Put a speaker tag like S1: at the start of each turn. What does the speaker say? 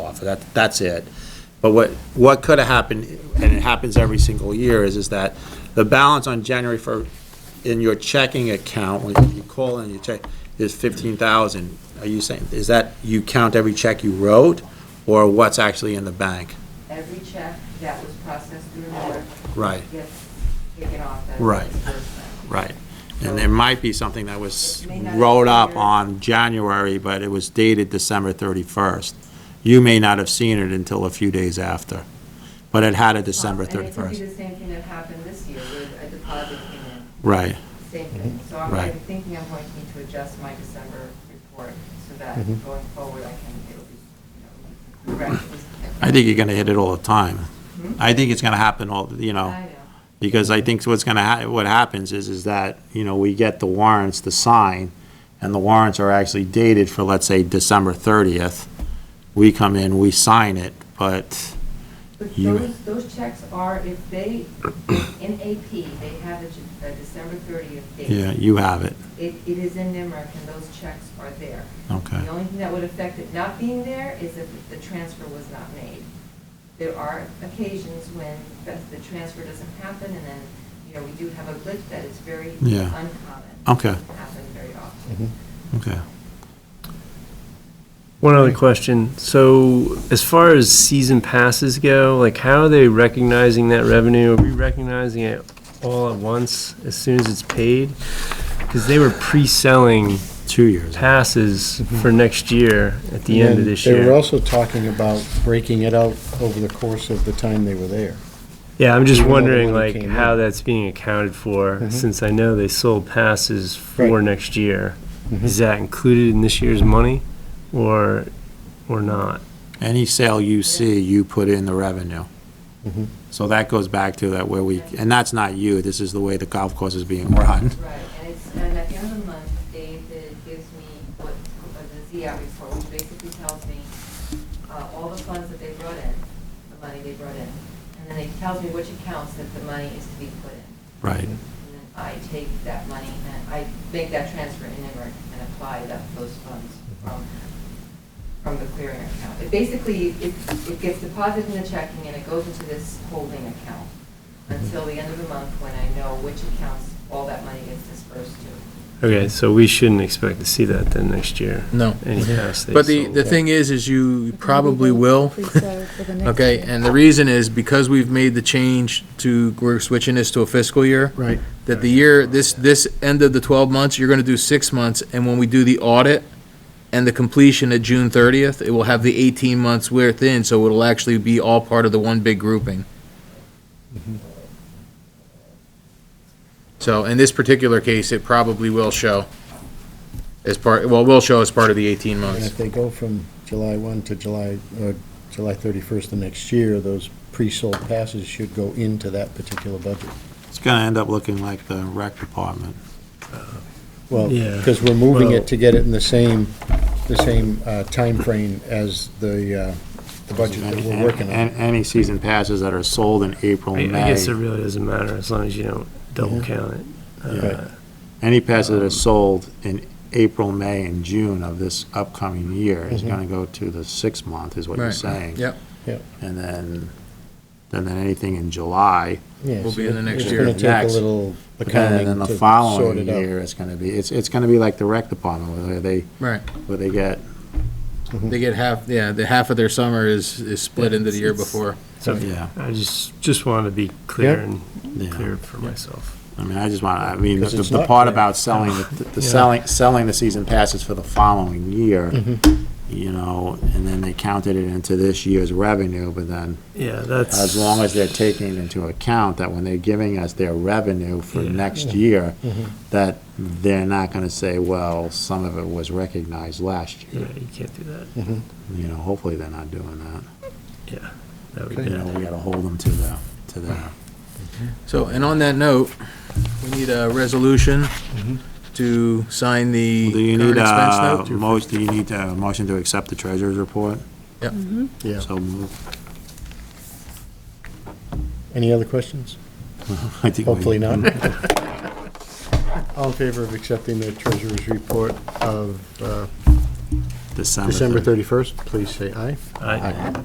S1: that, that's it. But what, what could have happened, and it happens every single year, is, is that the balance on January for, in your checking account, when you call and you check, is fifteen thousand. Are you saying, is that you count every check you wrote, or what's actually in the bank?
S2: Every check that was processed through the board
S1: Right,
S2: gets taken off as
S1: Right.
S2: disbursement.
S1: right. And there might be something that was
S2: It may not
S1: rolled up
S2: appear.
S1: on January, but it was dated December thirty-first. You may not have seen it until a few days after, but it had a December
S2: Um, And it
S1: thirty-first.
S2: could be the same thing that happened this year with a deposit came in,
S1: Right,
S2: same thing. So I'm
S1: Right.
S2: I'm thinking I'm going to need to adjust my December report so that
S3: Mhm.
S2: going forward I can, it'll be, you know, correct.
S1: I think you're gonna hit it all the time.
S2: Hmm?
S1: I think it's gonna happen all, you know.
S2: I know.
S1: Because I think what's gonna, hap- what happens is, is that, you know, we get the warrants to sign, and the warrants are actually dated for, let's say, December 30th. We come in, we sign it, but,
S2: But
S1: You-
S2: those, those checks are, if they, in AP, they have a J- a December 30th date.
S1: yeah, you have it,
S2: It, it is in NIMRAC and those checks are there.
S1: okay.
S2: The only thing that would affect it not being there is if the transfer was not made. There are occasions when the, the transfer doesn't happen and then, you know, we do have a glitch that is very
S1: Yeah.
S2: uncommon.
S1: Okay.
S2: Doesn't Happen very often.
S1: Okay.
S3: One other question. So as far as season passes go, like how are they recognizing that revenue? Are we recognizing it all at once as soon as it's paid? Because they were pre-selling
S1: Two years.
S3: passes for next year at the end of this
S4: Mm-hmm. They were
S3: year.
S4: also talking about breaking it out over the course of the time they were there.
S3: Yeah, I'm just
S4: Even though the
S3: wondering
S4: money
S3: like
S4: came
S3: how
S4: in.
S3: that's being accounted for,
S4: Mhm.
S3: since I know they sold passes for
S4: Right. Mm-hmm.
S3: next year. Is that included in this year's money or, or not?
S1: Any sale you see, you put in the revenue.
S4: Mhm.
S1: So that goes back to that where we, and that's not you, this is the way the golf course is being run.
S2: Right, and it's, and at the end of the month, David gives me what, uh, the Z out report, which basically tells me, uh, all the funds that they brought in, the money they brought in, and then it tells me which accounts that the money is to be put in.
S1: Right,
S2: And then I take that money and I make that transfer in Emmerich and apply that, those funds from, from the clearing account. It basically, it, it gets deposited in the checking and it goes into this holding account until the end of the month when I know which accounts all that money gets dispersed to.
S3: Okay, so we shouldn't expect to see that then next year?
S5: No.
S3: Any pass they
S5: But the,
S3: sold.
S5: the thing is, is you probably will.
S6: Pre-sell for the next
S5: Okay,
S6: year.
S5: and the reason is because we've made the change to, we're switching this to a fiscal year.
S4: Right.
S5: That the year, this, this end of the twelve months, you're gonna do six months, and when we do the audit and the completion at June thirtieth, it will have the eighteen months within, so it'll actually be all part of the one big grouping. So in this particular case, it probably will show as part, well, will show as part of the eighteen
S4: And
S5: months.
S4: if they go from July 1 to July, or July 31st the next year, those pre-sold passes should go into that particular budget.
S1: it's gonna end up looking like the rec department.
S4: Well,
S3: Yeah.
S4: because we're moving
S3: Well-
S4: it to get it in the same, the same uh, timeframe as the, uh, the budget that we're working on.
S1: An- Any season passes that are sold in April,
S3: I
S1: May.
S3: I guess it really doesn't matter as long as you don't double
S4: Yeah.
S3: count it.
S1: Yeah.
S3: Uh,
S1: Any passes that are sold in April, May, and June of this upcoming year is
S4: Mhm.
S1: gonna go to the sixth month, is what you're
S5: Right.
S1: saying.
S5: Yep.
S4: Yep.
S1: And then, and then anything in July,
S4: Yeah,
S5: Will be
S4: so
S5: in the next
S4: it's
S5: year.
S4: gonna take a
S1: Next.
S4: little
S1: and then
S4: accounting
S1: the
S4: to sort
S1: following
S4: it out.
S1: year, it's gonna be, it's, it's gonna be like the rec department, where they,
S5: Right.
S1: where they get,
S4: Mm-hmm.
S5: They get half, yeah, the half of their summer is, is split into the year before.
S3: So
S1: yeah.
S3: I just, just wanted to be clear
S4: Yeah.
S3: and
S1: Yeah.
S3: clear for myself.
S1: I mean, I just want, I mean, the,
S4: 'Cause it's
S1: the
S4: not
S1: part
S4: clear.
S1: about selling, the- the
S3: Yeah.
S1: selling, selling the season passes for the following year,
S4: Mm-hmm.
S1: you know, and then they counted it into this year's revenue, but then
S3: Yeah, that's.
S1: as long as they're taking into account that when they're giving us their revenue for
S3: Yeah.
S1: next year,
S4: Mm-hmm.
S1: that they're not gonna say, well, some of it was recognized last year.
S3: Yeah, you can't do that.
S4: Mm-hmm.
S1: You know, hopefully they're not doing that.
S3: Yeah, that would be
S1: You know,
S3: bad.
S1: we gotta hold them to the, to their
S5: So, and on that note, we need a resolution to sign
S1: Do
S5: the
S1: Mm-hmm. you
S5: current
S1: need uh,
S5: expense
S1: a,
S5: note.
S1: most, do you need a motion to accept the treasurer's report?
S5: Yep.
S4: Yeah.
S1: So move.
S4: Any other questions?
S1: I think we-
S4: Hopefully not. All in favor of accepting the treasurer's report of uh,
S1: December
S4: December
S1: thirty.
S4: 31st, please say aye.
S3: Aye.